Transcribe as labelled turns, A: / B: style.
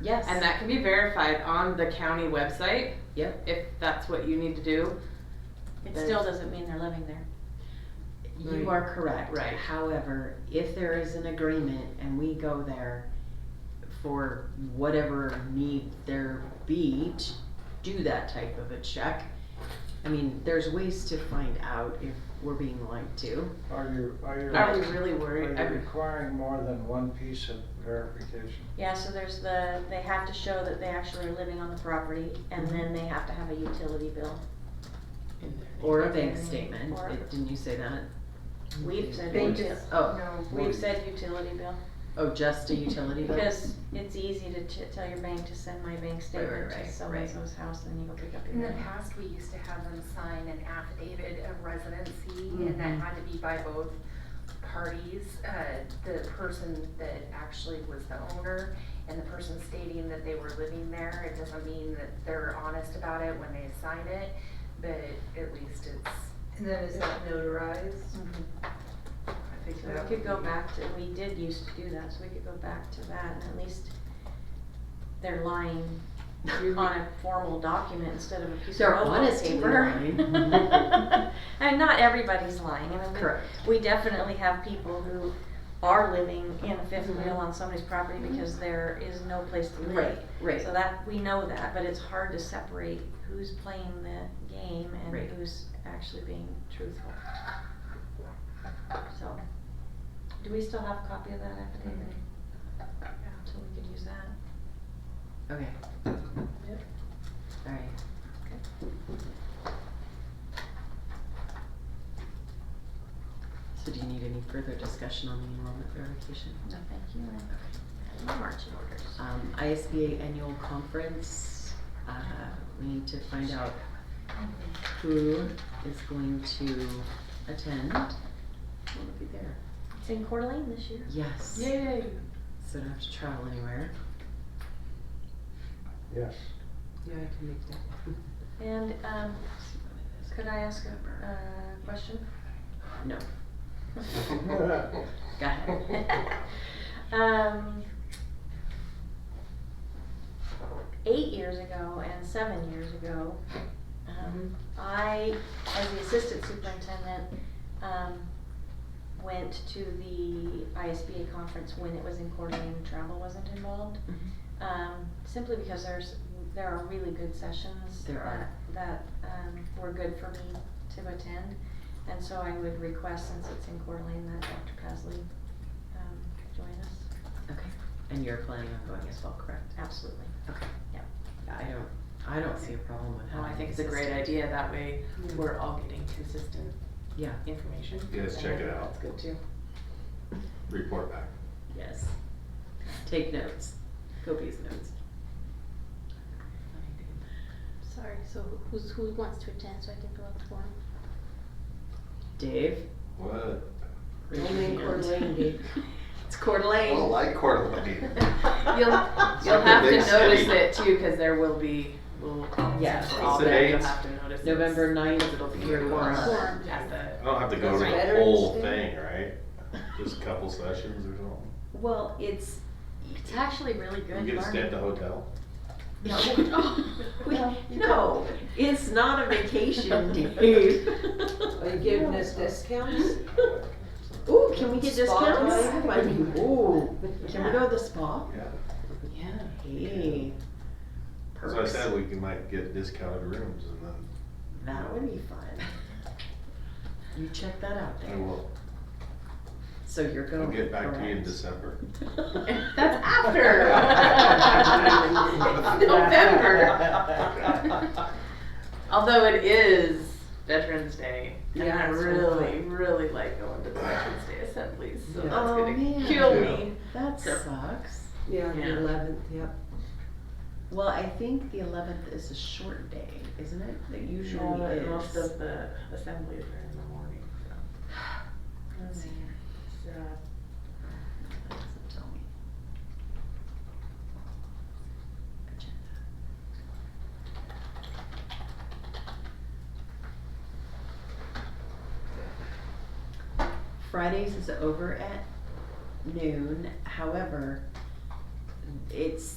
A: Yes.
B: And that can be verified on the county website.
A: Yep.
B: If that's what you need to do.
C: It still doesn't mean they're living there.
A: You are correct.
B: Right.
A: However, if there is an agreement and we go there for whatever need there be to do that type of a check, I mean, there's ways to find out if we're being lied to.
D: Are you, are you,
B: Are we
D: are
B: really
D: you
B: worried? Are
D: requiring more than one piece of verification?
C: Yeah, so there's the, they have to show that they actually are living on the property, and then they have to have a utility bill.
A: Or a bank statement,
C: Or-
A: didn't you say that?
C: We've said,
A: They
C: uti-
A: Oh,
C: we've said utility bill,
A: oh, just a utility bill?
C: because it's easy to ch- tell your bank to send my bank statement
A: right,
C: to
A: right.
C: someone's house, and you go pick up
E: In
C: your
E: the
C: money.
E: past, we used to have them sign an affidavit of residency, and that had to be by both parties. Uh, the person that actually was the owner and the person stating that they were living there. It doesn't mean that they're honest about it when they sign it, but at least it's.
F: And then is that notarized?
C: Mhm.
F: I think
C: So
F: that
C: we
F: would
C: could go
F: be-
C: back to, we did used to do that, so we could go back to that, and at least they're lying on a formal document instead of a piece
A: They're
C: of notebook
A: honestly
C: paper.
A: lying.
C: And not everybody's lying, I mean, we
A: Correct.
C: we definitely have people who are living in a fifth wheel on somebody's property because there is no place to
A: Mm-hmm. Right,
C: live.
A: right.
C: So that, we know that, but it's hard to separate who's playing the game
A: Right.
C: and who's actually being truthful. So, do we still have a copy of that affidavit?
A: Mm-hmm.
C: So we could use that.
A: Okay.
F: Yep.
A: Alright. So do you need any further discussion on the enrollment verification?
C: No, thank you. I have marching orders.
A: Um, ISBA annual conference, uh, we need to find out who is going to attend. Will it be there?
C: It's in Coeur d'Alene this year.
A: Yes.
B: Yay.
A: So don't have to travel anywhere.
D: Yes.
A: Yeah, I can make that.
C: And, um, could I ask a, uh, question?
A: No,
D: Go
A: go ahead.
C: um, eight years ago and seven years ago, um, I, as the assistant superintendent, um, went to the ISBA conference when it was in Coeur d'Alene and travel wasn't involved.
A: Mm-hmm.
C: Um, simply because there's, there are really good sessions.
A: There are.
C: That, that, um, were good for me to attend. And so I would request, since it's in Coeur d'Alene, that Dr. Pasley, um, join us.
A: Okay, and you're planning on going as well, correct?
C: Absolutely.
A: Okay.
C: Yep.
A: I don't, I don't see a problem with
B: Oh,
A: having.
B: I think it's a great
A: assistant.
B: idea. That way we're all getting consistent
A: Yeah,
B: information.
G: Yes,
B: And
G: check
B: I
G: it
B: think
G: out.
B: That's good too.
G: report back.
A: yes. Take notes, copious notes.
H: Sorry, so who's, who wants to attend so I can fill out the form?
A: Dave?
G: What?
A: raise your
F: Only in Coeur
A: hand.
F: d'Alene, Dave.
A: It's Coeur d'Alene.
G: Well, like Coeur d'Alene.
B: You'll,
G: It's
B: you'll
G: like a
B: have to
G: big
B: notice
G: city.
B: it too, cause there will be, we'll,
A: Yeah.
B: for all
G: What's the
B: that, you'll
G: date?
B: have to notice. it's-
A: November ninth,
B: It'll be
A: through
B: your
A: one.
H: Forum.
B: at the.
G: I don't have to go
F: That's
G: to the
F: Veterans
G: whole
F: Day.
G: thing, right? Just a couple sessions or something.
A: Well, it's,
C: It's actually really good
G: You get to stay at
C: learning.
G: the hotel.
A: no,
H: No.
A: no, it's not a vacation, Dave.
F: Are you giving us discounts?
A: Ooh, can we get
F: Spa
A: discounts?
F: time?
A: I mean, ooh, can we go to the spa?
G: Yeah,
B: Yeah.
A: Hey.
G: that's what I
A: Perks.
G: said, we can like get discounted rooms and then
A: That would be fun. You check that out
G: I
A: there.
G: will,
A: So you're going.
G: I'll get back to you in
A: correct.
G: December.
B: That's after. It's November. Although it is Veterans Day, and I
F: Yeah, it's
B: really,
F: fun.
B: really like going to the Veterans Day assemblies, so
F: Yeah.
B: that's
A: Oh,
B: gonna
A: man.
B: kill
G: Yeah.
B: me.
A: That
B: Sure.
A: sucks.
F: Yeah,
B: Yeah.
F: the eleventh, yep.
A: Well, I think the eleventh is a short day, isn't it? That usually
B: Usually
A: is.
B: most of the assemblies are in the morning, so. so.
A: Doesn't tell me. Agenda. Fridays is over at noon, however, it's